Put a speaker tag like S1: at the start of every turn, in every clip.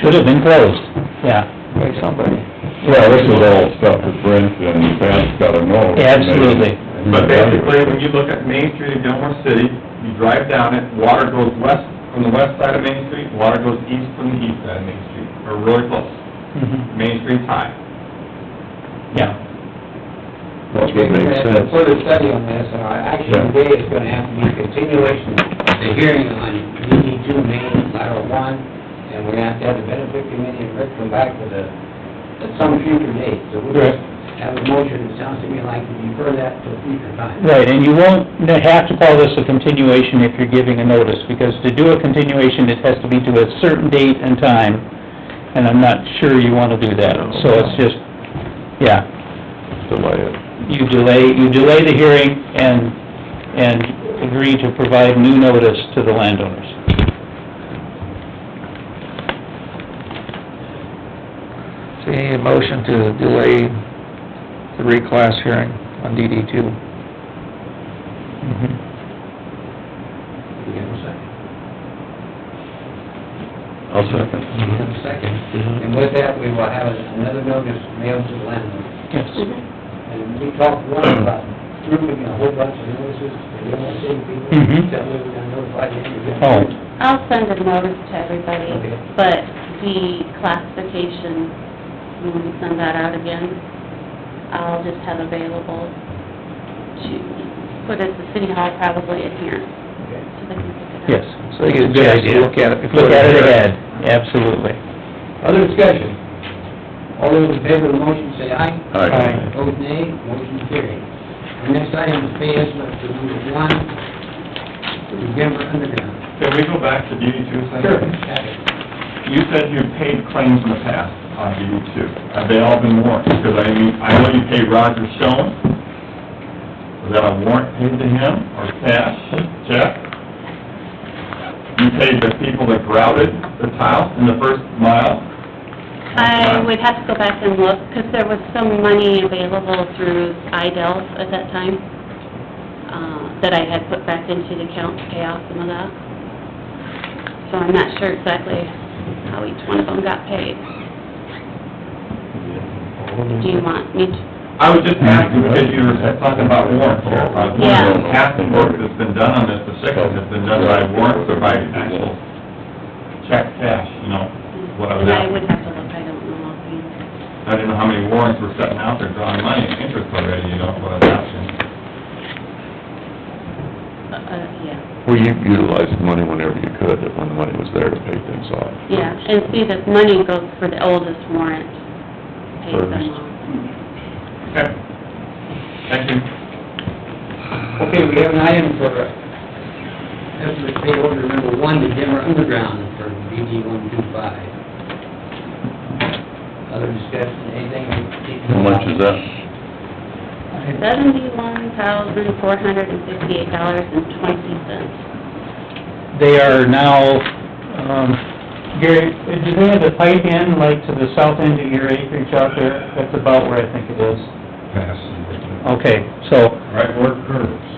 S1: Should have been closed, yeah.
S2: by somebody.
S3: Well, this is all stuff that Brent and Pat's gotta know.
S1: Absolutely.
S4: But basically, when you look at Main Street in Gilmore City, you drive down it, water goes west from the west side of Main Street, water goes east from the east side of Main Street. We're really close.
S1: Mhm.
S4: Main Street's high.
S1: Yeah,
S3: That's what makes sense.
S2: Further study on this, and our action
S3: Yeah.
S2: today is gonna have to be a continuation of the hearing on DD two main lateral one, and we're gonna have to have the benefit committee and Rick come back with a, at some future date, so we'll
S1: Right.
S2: just have a motion, it sounds to me like to defer that to a future time.
S1: right, and you won't have to call this a continuation if you're giving a notice, because to do a continuation, it has to be to a certain date and time, and I'm not sure you wanna do that, so it's just, yeah. You delay, you delay the hearing and, and agree to provide new notice to the landowners.
S5: See, a motion to delay the reclass hearing on DD two.
S1: Mm-hmm.
S2: We have a second.
S3: I'll second.
S2: We have a second, and with that, we will have another notice mailed to the landlord.
S1: Yes.
S2: And we talked once about grouping a whole bunch of notices, and then we'll send people,
S3: Mm-hmm.
S1: Mhm.
S2: that way we're gonna notify the individual.
S1: Oh,
S6: I'll send a notice to everybody,
S2: Okay.
S6: but the classification, when we send that out again, I'll just have available to put at the city hall probably in here,
S2: Okay.
S6: so they can pick it
S1: yes.
S5: So
S6: up.
S5: you get a
S1: Good
S5: chance to
S1: idea.
S5: look at it before.
S1: Look at it
S5: the hearing.
S1: ahead, absolutely.
S2: Other discussion? All those in favor of the motion say aye.
S3: Aye.
S2: Vote nay, motion carried. The next item is pay estimate for number one, the Denver Underground.
S4: Can we go back to DD two a second? You said you paid claims in the past on DD two. Have they all been warranted? Because I mean, I know you paid Roger Stone. Was that a warrant paid to him or cash, check? You paid the people that grouted the tiles in the first mile?
S6: I would have to go back and look, because there was some money available through IDELF at that time, uh, that I had put back into the account to pay off some of that. So I'm not sure exactly how each one of them got paid. Do you want me to,
S4: I was just asking, because you were talking about warrants here. I was wondering, half the work that's been done on this, the second has been done by warrants or by actual check cash, you know, what I was
S6: I
S4: asking.
S6: would have to look, I don't know offhand.
S4: I didn't know how many warrants were setting out there drawing money, interest already, you know, what I was asking.
S6: Uh, uh, yeah,
S3: Well, you utilized money whenever you could, when the money was there to pay things off.
S6: yeah, and see, this money goes for the oldest warrant, pays them all.
S4: Okay. Thank you.
S2: Okay, we have an item for estimate pay order number one to Denver Underground for DD one two five. Other discussion, anything?
S3: How much is that?
S6: Seventy-one thousand, four hundred and fifty-eight dollars and twenty cents.
S1: They are now, um, Gary, do they have the pipe in, like, to the south end of your acreage out there? That's about where I think it is. Okay, so,
S4: Right word curves.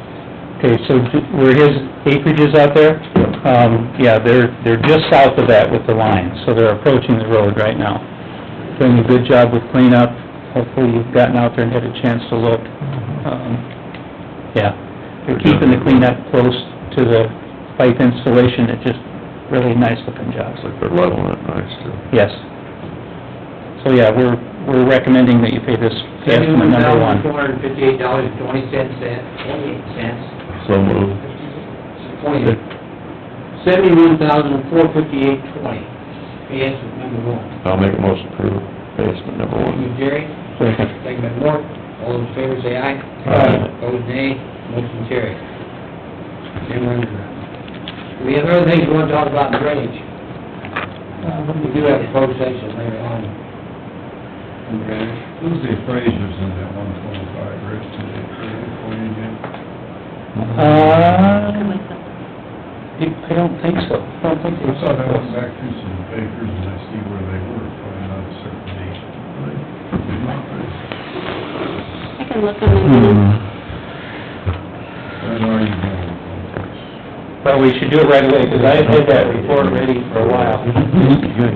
S1: okay, so d- where his acreage is out there? Um, yeah, they're, they're just south of that with the line, so they're approaching the road right now. Doing a good job with cleanup. Hopefully you've gotten out there and had a chance to look. Um, yeah, they're keeping the cleanup close to the pipe installation. It's just really nice looking job.
S3: It's like they're leveling it nice too.
S1: Yes. So, yeah, we're, we're recommending that you pay this estimate number one.
S2: Two hundred and fifty-eight dollars and twenty cents, twenty-eight cents.
S3: So moved.
S2: Twenty, seventy-one thousand, four fifty-eight, twenty. Pay estimate number one.
S3: I'll make a motion to approve basement number
S2: Thank you,
S3: one.
S2: Jerry.
S1: Second.
S2: Second by Mort. All those in favor say aye.
S3: Aye.
S2: Opposed, nay. Motion carried. Jim Underground. We have other things we want to talk about in drainage. We do have a closed session later on. in drainage.
S7: Who's the appraisers in that one twenty-five, Rich, did they approve it for you yet?
S1: Uh,
S6: Can we set this?
S1: I don't think so. I don't think
S7: I thought I went back through some papers and I see where they were, probably not a certain date.
S6: I can look on
S1: Hmm.
S6: my phone.
S7: When are you going to contact?
S1: But we should do it right away, because I had that report ready for a while.
S3: Good.